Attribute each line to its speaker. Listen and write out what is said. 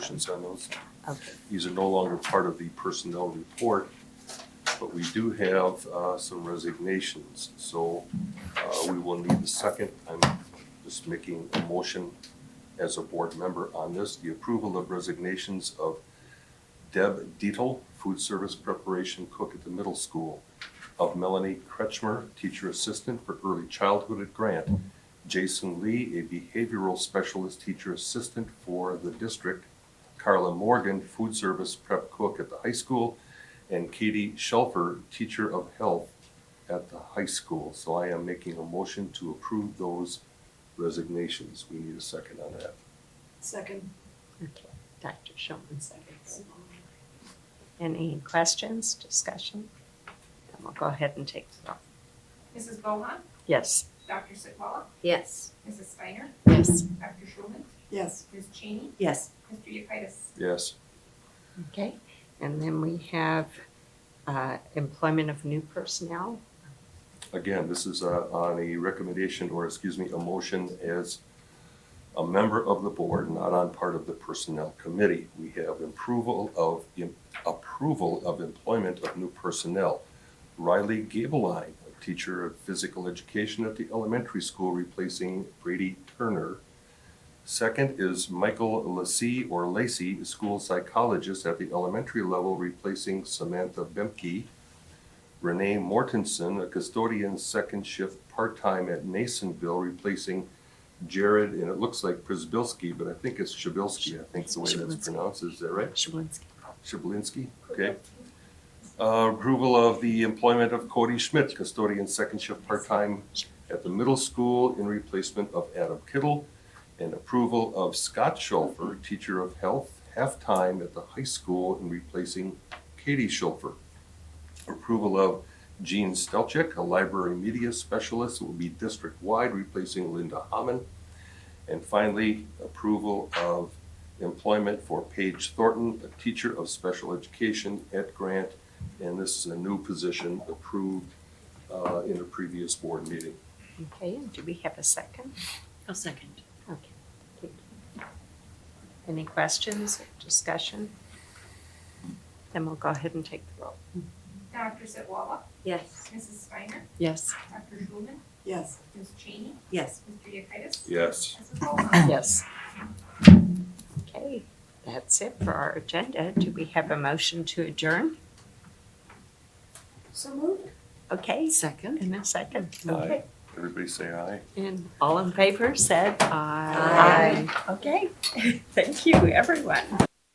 Speaker 1: actions on those.
Speaker 2: Okay.
Speaker 1: These are no longer part of the personnel report, but we do have uh, some resignations. So uh, we will need a second. I'm just making a motion as a board member on this. The approval of resignations of Deb Dietel, food service preparation cook at the middle school, of Melanie Kretschmer, teacher assistant for early childhood at Grant, Jason Lee, a behavioral specialist teacher assistant for the district, Carla Morgan, food service prep cook at the high school, and Katie Shelfer, teacher of health at the high school. So I am making a motion to approve those resignations. We need a second on that.
Speaker 3: Second.
Speaker 2: Okay, Dr. Shulman seconds. Any questions, discussion? And we'll go ahead and take the roll.
Speaker 4: Mrs. Bohan,
Speaker 2: Yes.
Speaker 4: Dr. Sitwalla,
Speaker 5: Yes.
Speaker 4: Mrs. Steiner,
Speaker 2: Yes.
Speaker 4: Dr. Schulman,
Speaker 3: Yes.
Speaker 4: Ms. Cheney,
Speaker 5: Yes.
Speaker 4: Mr. Yekitis.
Speaker 1: Yes,
Speaker 2: Okay, and then we have uh, employment of new personnel.
Speaker 1: again, this is uh, on a recommendation, or excuse me, a motion as a member of the board, not on part of the personnel committee. We have approval of, im- approval of employment of new personnel. Riley Gabeline, a teacher of physical education at the elementary school, replacing Brady Turner. Second is Michael Lacy or Lacy, a school psychologist at the elementary level, replacing Samantha Bemke. Renee Mortensen, a custodian second shift part-time at Nasonville, replacing Jared, and it looks like Prisbilski, but I think it's Shabilski, I think is the way that's
Speaker 2: Shabilsky.
Speaker 1: pronounced, is that right?
Speaker 2: Shalinski.
Speaker 1: Shablinsky, okay. Uh, Approval of the employment of Cody Schmidt, custodian second shift part-time at the middle school in replacement of Adam Kittle. And approval of Scott Schulfer, teacher of health, half-time at the high school in replacing Katie Schulfer. Approval of Jean Stelcheck, a library media specialist, who will be district-wide replacing Linda Hammond. And finally, approval of employment for Paige Thornton, a teacher of special education at Grant. And this is a new position approved uh, in a previous board meeting.
Speaker 2: Okay, and do we have a second?
Speaker 5: I'll second.
Speaker 2: Okay. thank you. Any questions, discussion? Then we'll go ahead and take the roll.
Speaker 4: Dr. Sitwalla,
Speaker 5: Yes.
Speaker 4: Mrs. Steiner,
Speaker 2: Yes.
Speaker 4: Dr. Schulman,
Speaker 3: Yes.
Speaker 4: Ms. Cheney,
Speaker 5: Yes.
Speaker 4: Mr. Yekitis.
Speaker 1: Yes.
Speaker 4: Mrs. Bohan,
Speaker 2: Yes. Okay, that's it for our agenda. Do we have a motion to adjourn?
Speaker 3: So moved.
Speaker 2: Okay,
Speaker 5: Second.
Speaker 2: in a second.
Speaker 1: Aye. Everybody say aye.
Speaker 2: And all in favor said aye. Okay, thank you, everyone.